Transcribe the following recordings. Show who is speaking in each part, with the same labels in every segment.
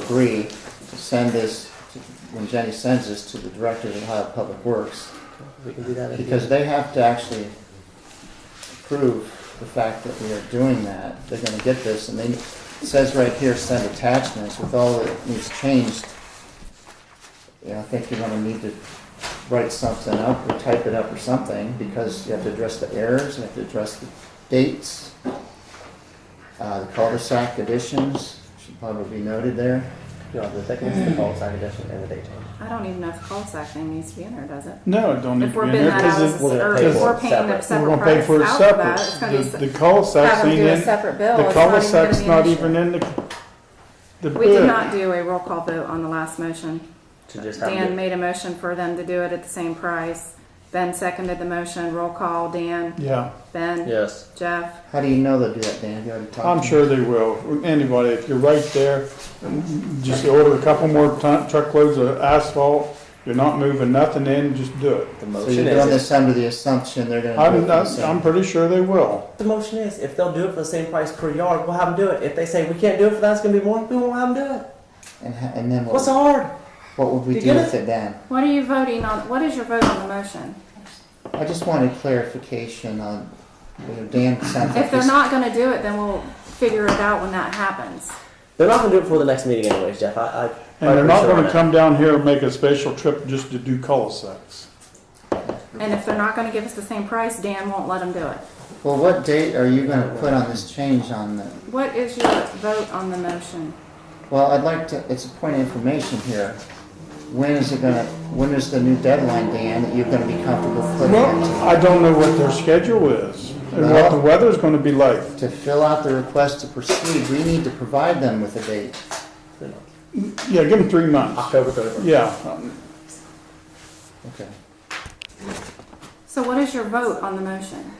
Speaker 1: agree to send this, when Jenny sends this to the Director of Ohio Public Works,
Speaker 2: We can do that. if you-
Speaker 1: because they have to actually prove the fact that we are doing that. They're gonna get this, and they, it says right here, send attachments with all that needs changed. You know, I think you're gonna need to write something up or type it up or something, because you have to address the errors, you have to address the dates, uh, the cul-de-sac additions, should probably be noted there.
Speaker 2: No, the second is the call sign addition and the date change.
Speaker 3: I don't even know if the cul-de-sac thing needs to be in there, does it?
Speaker 4: No, it don't need
Speaker 3: If
Speaker 4: to
Speaker 3: we're
Speaker 4: be in
Speaker 3: bidding
Speaker 4: there
Speaker 3: that out,
Speaker 4: because
Speaker 3: as
Speaker 4: it-
Speaker 3: a- or
Speaker 2: pay
Speaker 3: if
Speaker 2: for
Speaker 3: we're
Speaker 2: it
Speaker 3: paying a
Speaker 2: separate.
Speaker 4: we're
Speaker 3: separate
Speaker 4: gonna pay
Speaker 3: price
Speaker 4: for it
Speaker 3: out for that, it's
Speaker 4: separate.
Speaker 3: gonna be.
Speaker 4: The- The
Speaker 3: se-
Speaker 4: cul-de-sac's
Speaker 3: have 'em
Speaker 4: ain't
Speaker 3: do a
Speaker 4: in.
Speaker 3: separate bill.
Speaker 4: The
Speaker 3: It's not even gonna
Speaker 4: cul-de-sac's
Speaker 3: be an
Speaker 4: not
Speaker 3: issue.
Speaker 4: even in the, the
Speaker 3: We did
Speaker 4: bid.
Speaker 3: not do a roll call vote on the last motion.
Speaker 2: To just have
Speaker 3: Dan
Speaker 2: it.
Speaker 3: made a motion for them to do it at the same price. Ben seconded the motion, roll call, Dan,
Speaker 4: Yeah,
Speaker 3: Ben,
Speaker 2: Yes.
Speaker 3: Jeff.
Speaker 1: How do you know they'll do that, Dan? Have you already talked to
Speaker 4: I'm
Speaker 1: them?
Speaker 4: sure they will. Anybody, if you're right there, just order a couple more ton, truckloads of asphalt. You're not moving nothing in, just do it.
Speaker 2: The
Speaker 1: So
Speaker 2: motion
Speaker 1: you're doing
Speaker 2: is,
Speaker 1: this under the assumption they're gonna do it
Speaker 4: I'm,
Speaker 1: for the same.
Speaker 4: I'm pretty sure they will.
Speaker 2: the motion is, if they'll do it for the same price per yard, we'll have them do it. If they say we can't do it for that, it's gonna be more, we won't have them do it.
Speaker 1: And, ho- and then
Speaker 2: What's
Speaker 1: what,
Speaker 2: hard?
Speaker 1: what would we
Speaker 2: You
Speaker 1: do
Speaker 2: get
Speaker 1: with it then?
Speaker 3: What are you voting on, what is your vote on the motion?
Speaker 1: I just wanted clarification on, you know, Dan sounds like
Speaker 3: If they're
Speaker 1: he's-
Speaker 3: not gonna do it, then we'll figure it out when that happens.
Speaker 2: They're not gonna do it before the next meeting anyways, Jeff. I, I.
Speaker 4: And they're
Speaker 2: I'm
Speaker 4: not
Speaker 2: sure on
Speaker 4: gonna
Speaker 2: it.
Speaker 4: come down here and make a special trip just to do cul-de-sacs.
Speaker 3: And if they're not gonna give us the same price, Dan won't let them do it.
Speaker 1: Well, what date are you gonna put on this change on the,
Speaker 3: What is your vote on the motion?
Speaker 1: well, I'd like to, it's a point of information here. When is it gonna, when is the new deadline, Dan, that you're gonna be comfortable putting it
Speaker 4: Well, I don't know what their schedule is and what the weather's gonna be like.
Speaker 1: to? To fill out the request to proceed, we need to provide them with a date.
Speaker 4: Yeah, give them three months.
Speaker 2: October thirty-first.
Speaker 4: Yeah,
Speaker 1: Okay.
Speaker 3: So what is your vote on the motion?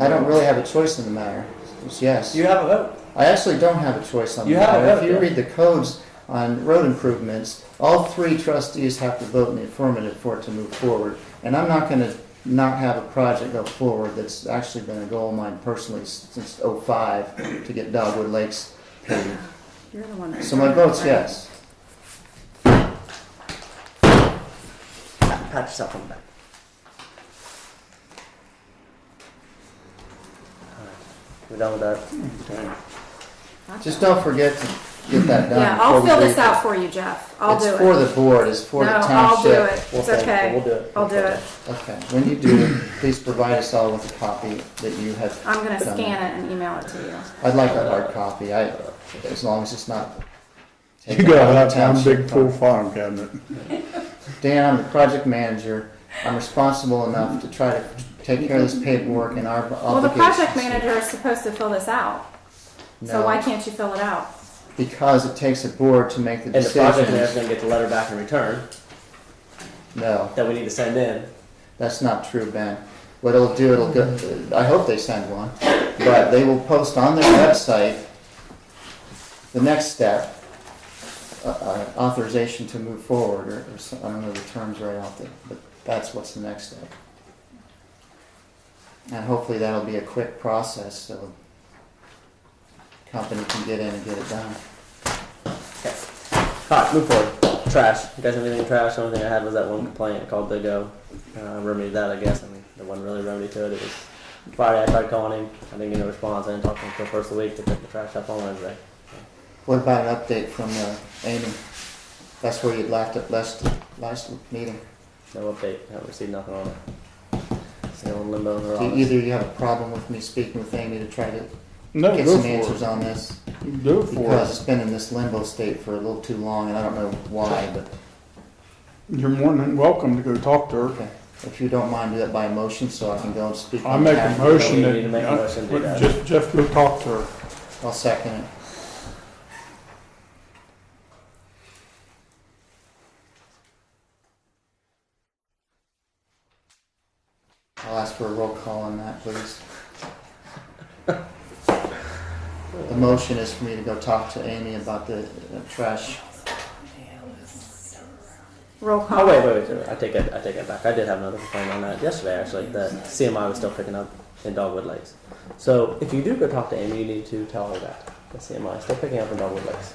Speaker 1: I don't really have a choice in the matter, it's yes.
Speaker 2: You have a vote.
Speaker 1: I actually don't have a choice on
Speaker 2: You
Speaker 1: that.
Speaker 2: have a
Speaker 1: if
Speaker 2: vote,
Speaker 1: you
Speaker 2: yeah.
Speaker 1: read the codes on road improvements, all three trustees have to vote in the affirmative for it to move forward. And I'm not going to not have a project go forward that's actually been a goal of mine personally s- since '05 to get Dogwood Lakes paved.
Speaker 3: You're the one that.
Speaker 1: So my vote's yes.
Speaker 2: Pat yourself on the back. Alright, We're done with that.
Speaker 1: Hmm. Just don't forget to get that done.
Speaker 3: Yeah, I'll
Speaker 1: before we
Speaker 3: fill
Speaker 1: leave.
Speaker 3: this out for you, Jeff. I'll
Speaker 1: It's
Speaker 3: do it.
Speaker 1: for the board, it's for the
Speaker 3: No, I'll
Speaker 1: township.
Speaker 3: do it. It's
Speaker 2: We'll thank you.
Speaker 3: okay.
Speaker 2: We'll do it.
Speaker 3: I'll do it.
Speaker 1: Okay, when you do, please provide us all with a copy that you have.
Speaker 3: I'm gonna
Speaker 1: done.
Speaker 3: scan it and email it to you.
Speaker 1: I'd like a hard copy, I, as long as it's not.
Speaker 4: You gotta have one
Speaker 1: Township
Speaker 4: big pool farm cabinet.
Speaker 1: Dan, I'm the project manager, I'm responsible enough to try to take care of this paperwork and our
Speaker 3: Well, the
Speaker 1: obligations.
Speaker 3: project manager is supposed to fill this out, so
Speaker 1: No.
Speaker 3: why can't you fill it out?
Speaker 1: Because it takes a board to make the
Speaker 2: And the project manager's
Speaker 1: decisions.
Speaker 2: gonna get the letter back in return
Speaker 1: No,
Speaker 2: that we need to send in.
Speaker 1: that's not true, Ben. What it'll do, it'll go, I hope they send one, but they will post on their website the next step, uh, uh, authorization to move forward, or, or some- I don't know the terms right off the, but that's what's the next step. And hopefully that'll be a quick process, so company can get in and get it done.
Speaker 2: Okay. Alright, move forward. Trash. You guys have anything trash? The only thing I had was that one complaint called Big O. Uh, remedied that, I guess. I mean, there wasn't really a remedy to it. It was Friday. I tried calling him. I didn't get a response. I didn't talk to him until first of the week to pick the trash up on Wednesday.
Speaker 1: What about an update from, uh, Amy? That's where you left it last, last meeting.
Speaker 2: No update. Haven't received nothing on it. Still in limbo in her
Speaker 1: Do
Speaker 2: office.
Speaker 1: E-, either you have a problem with me speaking with Amy to try to
Speaker 4: No,
Speaker 1: get
Speaker 4: go
Speaker 1: some
Speaker 4: for
Speaker 1: answers
Speaker 4: it.
Speaker 1: on this?
Speaker 4: Do it for
Speaker 1: Because
Speaker 4: it.
Speaker 1: it's been in this limbo state for a little too long, and I don't know why, but,
Speaker 4: You're more than welcome to go talk to her.
Speaker 1: okay. If you don't mind, do that by motion, so I can go and speak.
Speaker 4: I
Speaker 1: on
Speaker 4: make a
Speaker 1: behalf of-
Speaker 4: motion
Speaker 2: we need to make a motion to do
Speaker 4: that,
Speaker 2: that.
Speaker 4: Jeff, Jeff, go talk to her.
Speaker 1: I'll second it. I'll ask for a roll call on that, please. The motion is for me to go talk to Amy about the uh, trash.
Speaker 3: Roll call.
Speaker 2: Oh wait, wait, wait, wait! I take that, I take that back. I did have another complaint on that yesterday, actually. That CMI was still picking up in Dogwood Lakes. So if you do go talk to Amy, you need to tell her that the CMI is still picking up in Dogwood Lakes.